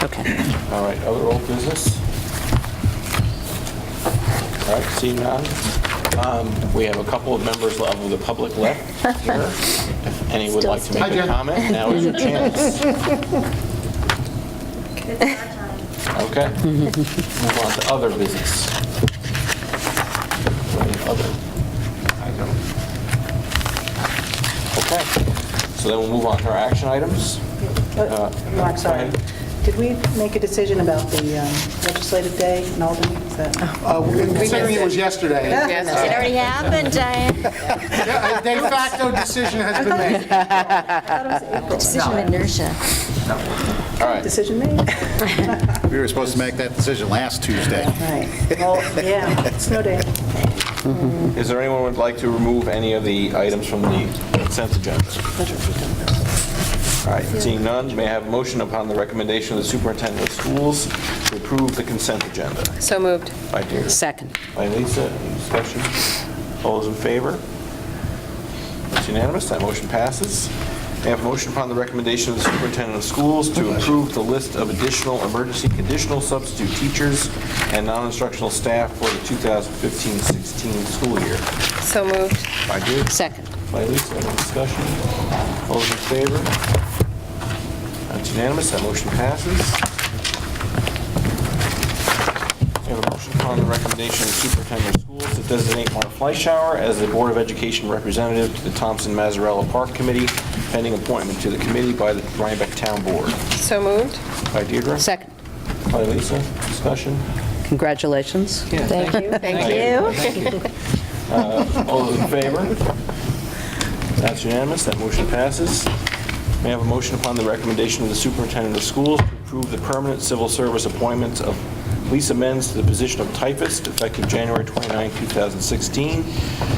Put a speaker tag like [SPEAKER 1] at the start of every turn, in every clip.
[SPEAKER 1] Okay.
[SPEAKER 2] All right, other old business? All right, seeing none. Um, We have a couple of members of the public left here. If any would like to make a comment, now is your chance. Okay. Move on to other business. Any Other. I don't- Okay, so then we'll move on to our action items. Uh,
[SPEAKER 3] Uh, Mark, sorry.
[SPEAKER 2] go ahead.
[SPEAKER 3] Did we make a decision about the um, legislative day in Albany? Is that-
[SPEAKER 4] Uh, Considering it was yesterday,
[SPEAKER 1] It already happened, Diane.
[SPEAKER 4] a de facto decision has been made.
[SPEAKER 1] Decision of inertia.
[SPEAKER 2] All right.
[SPEAKER 3] Decision made?
[SPEAKER 5] We were supposed to make that decision last Tuesday.
[SPEAKER 3] Right. Well, yeah, snow day.
[SPEAKER 2] Is there anyone would like to remove any of the items from the consent agenda? All right, seeing none, may I have a motion upon the recommendation of the superintendent of schools to approve the consent agenda?
[SPEAKER 6] So moved.
[SPEAKER 2] By Deirdre.
[SPEAKER 1] Second.
[SPEAKER 2] By Lisa, any discussion? All those in favor? That's unanimous, that motion passes. May I have a motion upon the recommendation of the superintendent of schools to approve the list of additional emergency conditional substitute teachers and non-instructional staff for the 2015-16 school year?
[SPEAKER 6] So moved.
[SPEAKER 2] By Deirdre.
[SPEAKER 1] Second.
[SPEAKER 2] By Lisa, any discussion? All those in favor? That's unanimous, that motion passes. We have a motion upon the recommendation of the superintendent of schools to designate Mark Fleischauer as the Board of Education representative to the Thompson Mazzarella Park Committee, pending appointment to the committee by the Rhinebeck Town Board.
[SPEAKER 6] So moved.
[SPEAKER 2] By Deirdre?
[SPEAKER 1] Second.
[SPEAKER 2] By Lisa, discussion?
[SPEAKER 1] Congratulations.
[SPEAKER 6] Thank you. Thank you.
[SPEAKER 2] All those in favor? That's unanimous, that motion passes. May I have a motion upon the recommendation of the superintendent of schools to approve the permanent civil service appointments of Lisa Menz to the position of typist effective January 29, 2016,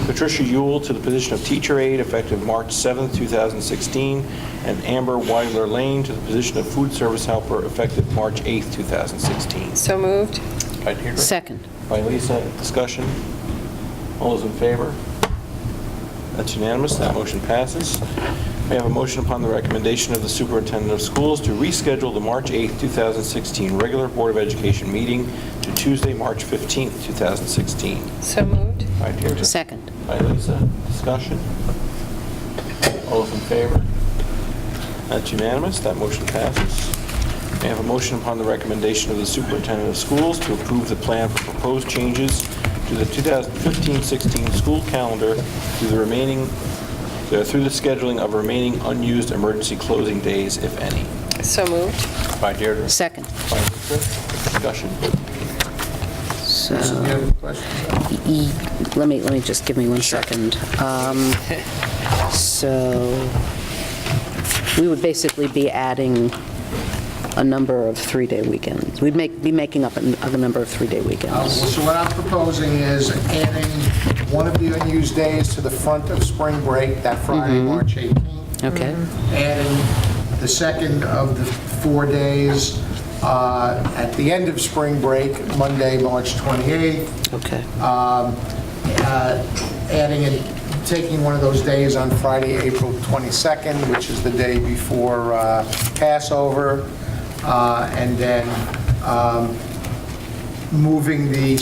[SPEAKER 2] Patricia Yule to the position of teacher aide effective March 7, 2016, and Amber Weidler Lane to the position of food service helper effective March 8, 2016.
[SPEAKER 6] So moved.
[SPEAKER 2] Right here.
[SPEAKER 1] Second.
[SPEAKER 2] By Lisa, discussion? All those in favor? That's unanimous, that motion passes. May I have a motion upon the recommendation of the superintendent of schools to reschedule the March 8, 2016 regular Board of Education meeting to Tuesday, March 15, 2016?
[SPEAKER 6] So moved.
[SPEAKER 2] By Deirdre.
[SPEAKER 1] Second.
[SPEAKER 2] By Lisa, discussion? All those in favor? That's unanimous, that motion passes. May I have a motion upon the recommendation of the superintendent of schools to approve the plan for proposed changes to the 2015-16 school calendar through the remaining, uh, through the scheduling of remaining unused emergency closing days, if any?
[SPEAKER 6] So moved.
[SPEAKER 2] By Deirdre.
[SPEAKER 1] Second.
[SPEAKER 2] By Lisa, discussion?
[SPEAKER 1] So, E- let me, let me just, give me one second. Um, So, we would basically be adding a number of three-day weekends. We'd make, be making up a a number of three-day
[SPEAKER 4] Uh,
[SPEAKER 1] weekends.
[SPEAKER 4] So what I'm proposing is adding one of the unused days to the front of spring break, that Friday, March 18th.
[SPEAKER 1] Okay.
[SPEAKER 4] Adding the second of the four days uh, at the end of spring break, Monday, March 28th.
[SPEAKER 1] Okay.
[SPEAKER 4] um, uh, adding and taking one of those days on Friday, April 22nd, which is the day before uh, Passover, uh, and then um, moving the,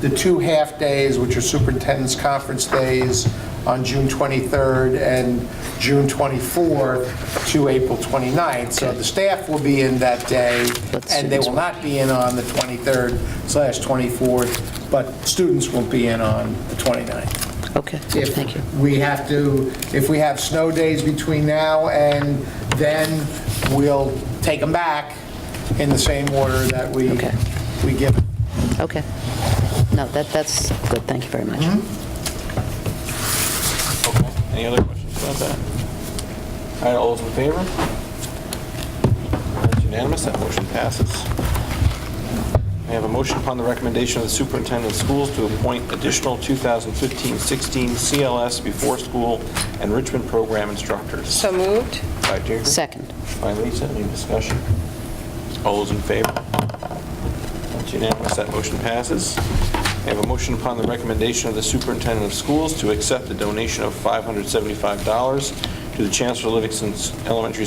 [SPEAKER 4] the two half-days, which are superintendent's conference days, on June 23rd and June 24th to April 29th. So the staff will be in that day,
[SPEAKER 1] But
[SPEAKER 4] and they
[SPEAKER 1] students
[SPEAKER 4] will not be in on the 23rd slash 24th, but students will be in on the 29th.
[SPEAKER 1] Okay,
[SPEAKER 4] If
[SPEAKER 1] thank you.
[SPEAKER 4] We have to, if we have snow days between now and then, we'll take them back in the same order that we,
[SPEAKER 1] Okay.
[SPEAKER 4] we give them.
[SPEAKER 1] Okay. No, that, that's good, thank you very much.
[SPEAKER 2] Okay, any other questions about that? All right, all those in favor? That's unanimous, that motion passes. We have a motion upon the recommendation of the superintendent of schools to appoint additional 2015-16 CLS before-school enrichment program instructors.
[SPEAKER 6] So moved.
[SPEAKER 2] By Deirdre?
[SPEAKER 1] Second.
[SPEAKER 2] By Lisa, any discussion? All those in favor? That's unanimous, that motion passes. I have a motion upon the recommendation of the superintendent of schools to accept the donation of $575 to the Chancellor Livingston Elementary